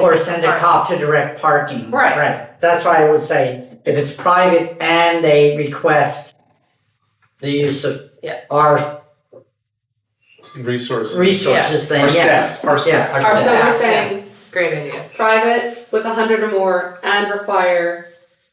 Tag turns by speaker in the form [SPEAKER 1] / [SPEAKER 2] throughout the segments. [SPEAKER 1] Or send a
[SPEAKER 2] Right.
[SPEAKER 1] cop to direct parking.
[SPEAKER 2] Right.
[SPEAKER 1] Right, that's why I would say, if it's private and they request the use of
[SPEAKER 2] Yeah.
[SPEAKER 1] our
[SPEAKER 3] resources.
[SPEAKER 1] resources, then
[SPEAKER 3] Our
[SPEAKER 1] yes.
[SPEAKER 3] staff, our staff.
[SPEAKER 1] Yeah,
[SPEAKER 4] Or
[SPEAKER 1] our
[SPEAKER 4] so
[SPEAKER 1] staff.
[SPEAKER 4] we're
[SPEAKER 2] Yeah.
[SPEAKER 4] saying
[SPEAKER 2] Great idea.
[SPEAKER 4] private with a hundred or more and require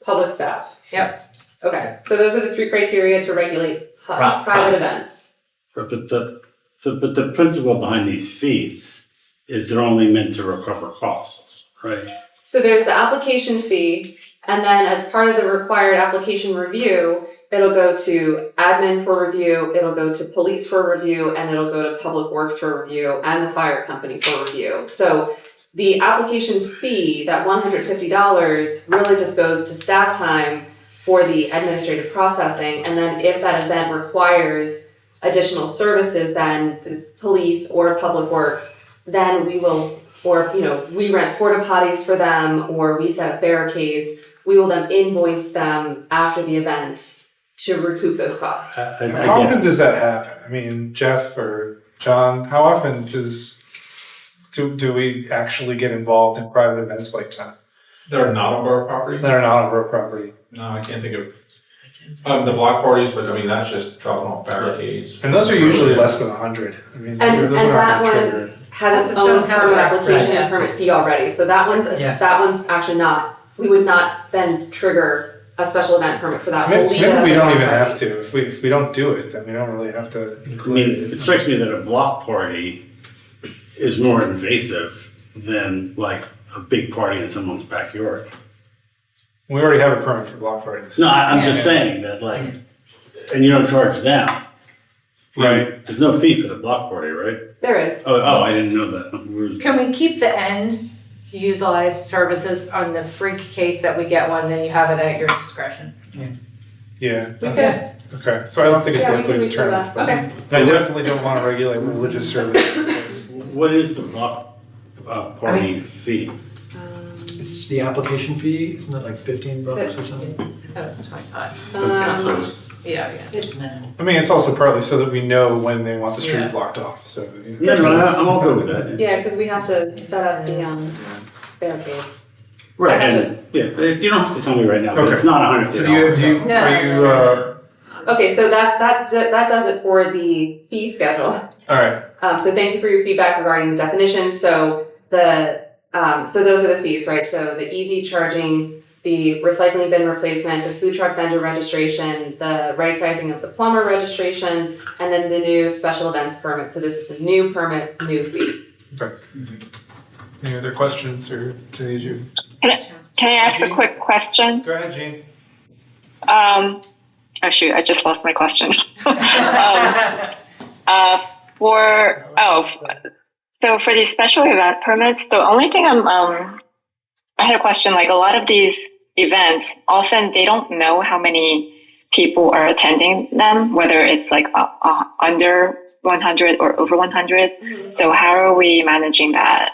[SPEAKER 4] public staff. Yep. Okay, so those are the three criteria to regulate hu-
[SPEAKER 1] Pri-
[SPEAKER 4] private events.
[SPEAKER 5] Right, But the, so, but the principle behind these fees is they're only meant to recover costs, right?
[SPEAKER 4] So there's the application fee, and then as part of the required application review, it'll go to admin for review, it'll go to police for review, and it'll go to public works for review and the fire company for review. So the application fee, that one hundred fifty dollars, really just goes to staff time for the administrative processing, and then if that event requires additional services, then the police or public works, then we will or you know we rent porta potties for them or we set up barricades we will then invoice them after the event to recoup those costs
[SPEAKER 5] I- I- I
[SPEAKER 3] How
[SPEAKER 5] get
[SPEAKER 3] often
[SPEAKER 5] it.
[SPEAKER 3] does that happen? I mean, Jeff or John, how often does do, do we actually get involved in private events like that
[SPEAKER 6] that are not on borough property?
[SPEAKER 3] that are not on our property?
[SPEAKER 6] No, I can't think of, um, the block parties, but I mean, that's just dropping off barricades.
[SPEAKER 3] And those are usually less than hundred. I mean, those
[SPEAKER 4] And-
[SPEAKER 3] are, those
[SPEAKER 4] and
[SPEAKER 3] are not gonna
[SPEAKER 4] that one-
[SPEAKER 3] trigger.
[SPEAKER 4] has
[SPEAKER 2] That's
[SPEAKER 4] its
[SPEAKER 2] its
[SPEAKER 4] own
[SPEAKER 2] own
[SPEAKER 4] permit
[SPEAKER 2] contract,
[SPEAKER 4] application
[SPEAKER 2] right,
[SPEAKER 4] and permit fee already so that one's a,
[SPEAKER 1] Yeah.
[SPEAKER 4] that one's actually not we would not then trigger a special event permit for that
[SPEAKER 3] So maybe,
[SPEAKER 4] We'll
[SPEAKER 3] so
[SPEAKER 4] leave it
[SPEAKER 3] maybe
[SPEAKER 4] as
[SPEAKER 3] we
[SPEAKER 4] a
[SPEAKER 3] don't even
[SPEAKER 4] non-permit.
[SPEAKER 3] have to. If we if we don't do it, then we don't really have to.
[SPEAKER 5] I mean, it strikes me that a block party is more invasive than like a big party in someone's backyard.
[SPEAKER 3] We already have a permit for block parties.
[SPEAKER 5] No, I, I'm just saying that like, and you don't charge them. You know,
[SPEAKER 3] Right.
[SPEAKER 5] There's no fee for the block party, right?
[SPEAKER 4] there is
[SPEAKER 5] Oh, oh, I didn't know that. We were-
[SPEAKER 2] Can we keep the end utilized services on the freak case that we get one, then you have it at your discretion?
[SPEAKER 3] Yeah.
[SPEAKER 4] we could
[SPEAKER 3] that's- Okay. So I don't think it's
[SPEAKER 4] yeah we
[SPEAKER 3] likely
[SPEAKER 4] could
[SPEAKER 3] to
[SPEAKER 4] reach for
[SPEAKER 3] turn.
[SPEAKER 4] that
[SPEAKER 3] but-
[SPEAKER 4] okay
[SPEAKER 3] I definitely don't want to regulate religious services.
[SPEAKER 5] What is the block uh, party fee?
[SPEAKER 4] um,
[SPEAKER 7] It's the application fee, isn't it like fifteen bucks or something?
[SPEAKER 2] I thought it was twenty-five.
[SPEAKER 4] um,
[SPEAKER 2] Yeah, yeah.
[SPEAKER 3] I mean, it's also partly so that we know when they want the street
[SPEAKER 2] Yeah.
[SPEAKER 3] blocked off. So you know.
[SPEAKER 5] Yeah, no, I- I'm all good with that.
[SPEAKER 4] yeah because we have to set up the um, barricades
[SPEAKER 5] Right, and, yeah, but you don't have to tell me right now, but it's not a hundred
[SPEAKER 3] So
[SPEAKER 5] fifty
[SPEAKER 3] do you,
[SPEAKER 5] dollars.
[SPEAKER 3] do you,
[SPEAKER 2] No,
[SPEAKER 3] are
[SPEAKER 2] no,
[SPEAKER 3] you,
[SPEAKER 2] no, no.
[SPEAKER 3] uh,
[SPEAKER 4] Okay, so that that d- that does it for the fee schedule.
[SPEAKER 3] all right,
[SPEAKER 4] Um, so thank you for your feedback regarding the definition. So the um, so those are the fees, right? So the EV charging, the recycling bin replacement, the food truck vendor registration, the right sizing of the plumber registration, and then the new special events permit. So this is a new permit, new fee.
[SPEAKER 3] any other questions or to you?
[SPEAKER 8] Can I ask a quick question?
[SPEAKER 3] Go ahead, Gene.
[SPEAKER 8] Um, oh shoot, I just lost my question. um, uh, for oh, f- so for these special event permits, the only thing I'm um, I had a question. Like a lot of these events, often they don't know how many people are attending them, whether it's like uh, uh, under 100 or over 100. So how are we managing that?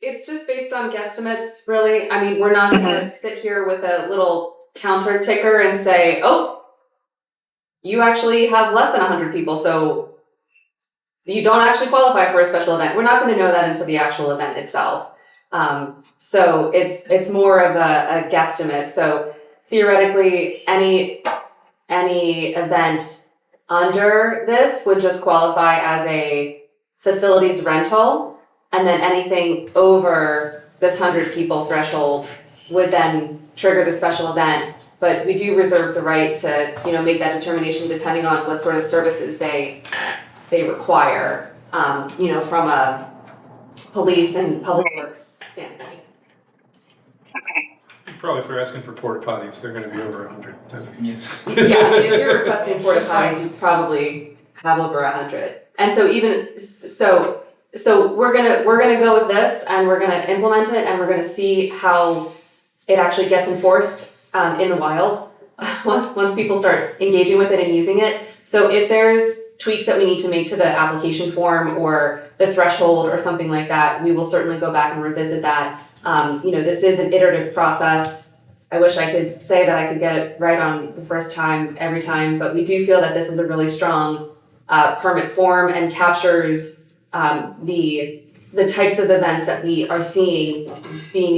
[SPEAKER 4] It's just based on guesstimates, really. I mean, we're not going to sit here with a little counter ticker and say, oh, you actually have less than 100 people, so you don't actually qualify for a special event. We're not going to know that until the actual event itself. Um, so it's it's more of a, a guesstimate. So theoretically, any any event under this would just qualify as a facilities rental and then anything over this 100 people threshold would then trigger the special event but we do reserve the right to you know make that determination depending on what sort of services they they require um, you know from a police and public works standpoint
[SPEAKER 8] Okay.
[SPEAKER 3] Probably if you're asking for porta potties, they're gonna be over a hundred.
[SPEAKER 4] yeah I mean, if you're requesting porta potties you probably have over 100 and so even so so we're gonna we're gonna go with this and we're gonna implement it and we're gonna see how it actually gets enforced um, in the wild once once people start engaging with it and using it so if there's tweaks that we need to make to the application form or the threshold or something like that we will certainly go back and revisit that um, you know this is an iterative process i wish i could say that i could get it right on the first time every time but we do feel that this is a really strong uh, permit form and captures um, the the types of events that we are seeing being